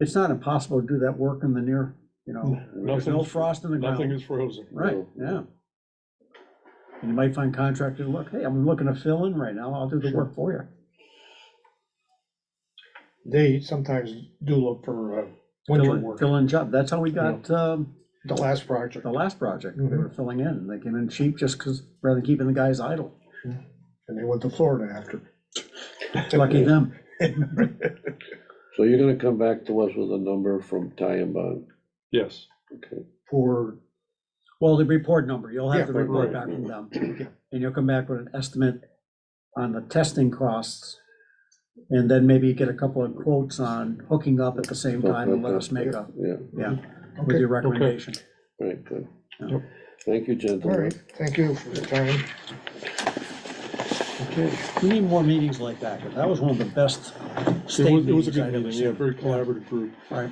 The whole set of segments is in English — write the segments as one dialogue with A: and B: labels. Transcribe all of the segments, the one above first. A: it's not impossible to do that work in the near, you know, there's no
B: Nothing's-
A: frost in the
B: Nothing
A: ground.
B: is frozen.
A: Right, yeah. And you might find contractors, look, hey, I'm looking to fill in right now, I'll do the
B: Sure.
A: work for you.
B: They sometimes do look for uh,
A: Fill
B: winter
A: in-
B: work,
A: Fill in job, that's how we got, um,
B: the last project,
A: the last project,
B: Mm-hmm.
A: they were filling in, and they came in cheap just because, rather than keeping the guys idle,
B: and they went to Florida after.
A: lucky them.
C: So you're gonna come back to us with a number from Ty and Bond,
D: Yes,
C: okay?
B: For,
A: Well, the report number, you'll
B: Yeah,
A: have the
B: right,
A: report
D: right.
A: back from them,
B: Yeah.
A: and you'll come back with an estimate on the testing costs. And then maybe get a couple of quotes on hooking up at the same time and let us make a,
C: Yeah,
A: yeah, with
B: okay,
A: your recommendation.
C: right, good.
A: Yep.
C: Thank you,
B: all
C: gentlemen.
B: right, thank you for your time.
C: Okay.
A: We need more meetings like that, 'cause that was one of the best
D: it
A: state
D: was, it was a
A: meetings
D: good
A: I've ever
D: meeting, yeah,
A: seen.
D: very collaborative group.
A: Right,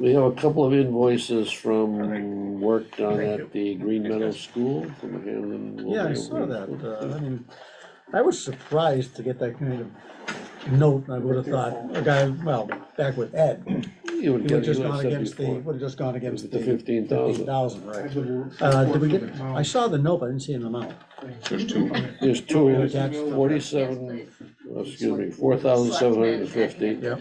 C: We have a couple of invoices from work done at the Green Meadow School from Hamlin.
A: yeah, I saw that, uh, I mean, I was surprised to get that kind of note, I would have thought, a guy, well, back with Ed,
C: You would
A: he would have
C: get, you
A: just gone
C: would have
A: against
C: said
A: the,
C: before.
A: would have just gone against
C: The
A: the.
C: fifteen
A: Fifteen
C: thousand,
A: thousand, right. Uh, did we get, I saw the note, but I didn't see an amount.
E: There's two.
C: there's
A: Yeah,
C: two,
A: that's-
C: forty-seven, oh, excuse me, four thousand seven hundred and fifty.
A: Yep.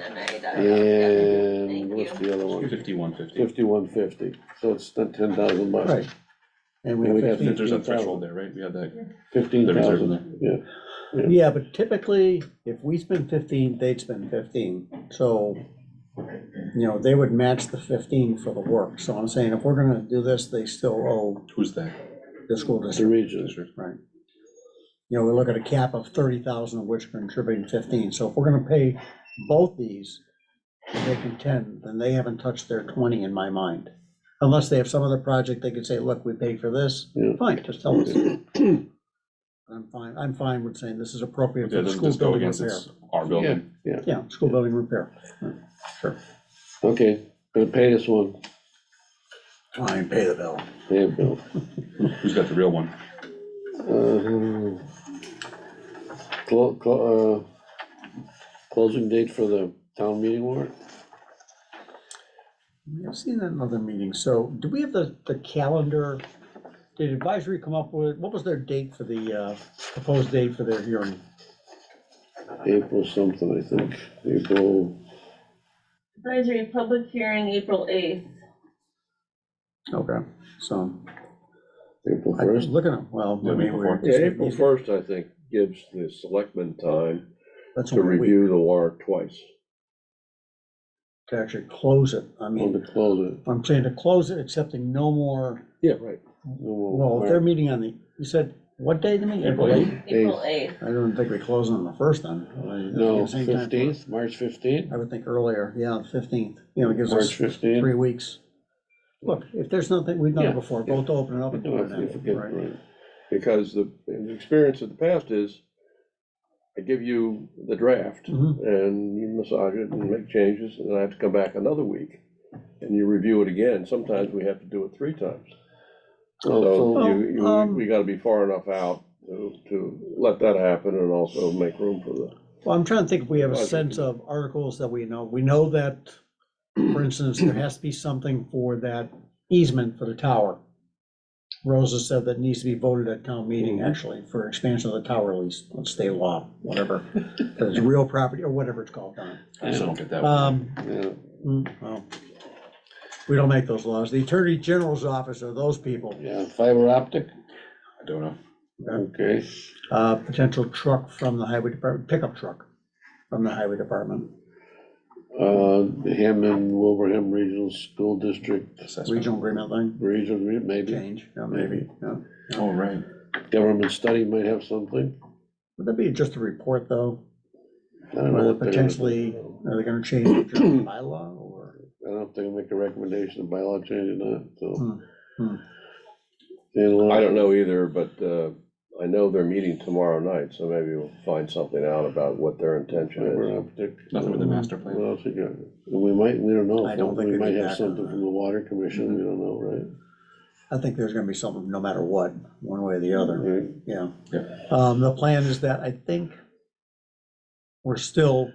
C: And
E: Thank
C: what's
E: you.
C: the other one?
F: Fifty-one fifty,
C: Fifty-one fifty, so it's ten thousand bucks.
A: Right. And we
C: And we
A: have
C: got
A: fifteen.
F: there's a
C: 15,000.
F: threshold there, right? We have that,
C: Fifteen
F: there is, isn't
C: thousand,
F: there?
C: yeah.
A: Yeah, but typically, if we spend fifteen, they'd spend fifteen, so, you know, they would match the fifteen for the work. So I'm saying if we're gonna do this, they still owe
F: Who's that?
A: the school
C: The
A: district,
C: region,
A: right? You know, we look at a cap of thirty thousand, of which contributing fifteen, so if we're gonna pay both these, and they contend, then they haven't touched their twenty in my mind. Unless they have some other project, they could say, look, we paid for this,
C: yeah.
A: Fine, just tell us. I'm fine, I'm fine with saying this is appropriate
F: Okay,
A: for the
F: doesn't
A: school
F: this go
A: building
F: against
A: repair.
F: it's our
C: Yeah,
F: building?
C: yeah,
A: Yeah, school building repair. Sure.
C: okay, gonna pay this one,
A: Fine, pay the bill.
C: pay a bill.
F: Who's got the real one?
C: Uh, Clo- clo- uh, Closing date for the town meeting warrant?
A: I've seen that in other meetings. So do we have the, the calendar? Did advisory come up with, what was their date for the, uh, proposed date for their hearing?
C: April something, I think, April,
E: Advisory public hearing, April eighth.
A: Okay, so
C: April
A: I was
C: first.
A: looking at, well, I
F: Yeah,
A: mean, we're.
G: Yeah, April first, I think, gives the selectmen time
A: That's
G: to
A: a week
G: review the warrant twice.
A: to actually close it. I
C: On
A: mean,
C: Oh, to close it.
A: I'm saying to close it, accepting no more
G: Yeah, right.
C: No more
A: Well, if
C: warrant.
A: they're meeting on the, you said, what day the meeting?
F: April eighth.
E: April eighth.
A: I don't think we close on the first then. I-
C: No,
A: it's the same time for-
C: fifteenth, March fifteenth,
A: I would think earlier, yeah, the fifteenth, you know, it gives us
C: March fifteenth.
A: three weeks. Look, if there's nothing, we've done
C: Yeah.
A: it before, both open it up and do it then, right?
G: Because the, the experience of the past is, I give you the draft,
A: Mhm.
C: Mm-hmm.
G: and you massage it and make changes, and I have to come back another week, and you review it again, sometimes we have to do it three times.
C: Oh,
G: So you,
A: Well,
G: you,
C: um
G: we gotta be far enough out to, to let that happen and also make room for the
A: Well, I'm trying to think if we have a
G: Budget.
A: sense of articles that we know, we know that, for instance, there has to be something for that easement for the tower. Rosa said that needs to be voted at town meeting, actually, for expansion of the tower lease, let's stay law, whatever. That it's real property, or whatever it's called, Don.
F: I just don't get that one.
A: Um, mm, well, We don't make those laws, the Attorney General's office are those people,
C: Yeah, fiber optic,
F: I don't know.
C: okay,
A: uh, potential truck from the highway department, pickup truck from the highway department,
C: uh, Hammond, Wilbraham Regional School District,
F: Assessment.
A: regional agreement line,
C: regional, re- maybe,
A: change, yeah, maybe, yeah.
F: Oh, right.
C: government study might have something.
A: Would that be just a report, though?
C: I don't know
A: Whether
C: what they're gonna-
A: potentially, are they gonna change the general bylaw, or?
C: I don't know if they're gonna make a recommendation of bylaw change or not, so.
A: Hmm, hmm.
C: And, uh,
G: I don't know either, but uh, I know they're meeting tomorrow night, so maybe we'll find something out about what their intention
C: Fiber
G: is.
C: optic.
F: Nothing with the master plan.
C: What else you got? And we might, we don't know.
A: I don't think
C: We
A: they'd
C: might
A: be
C: have
A: back on
C: something
A: that. Mm-hmm.
C: from the water commission, we don't know, right?
A: I think there's gonna be something, no matter what, one way or the other,
C: Right,
A: yeah. Um, the plan is that, I think, we're still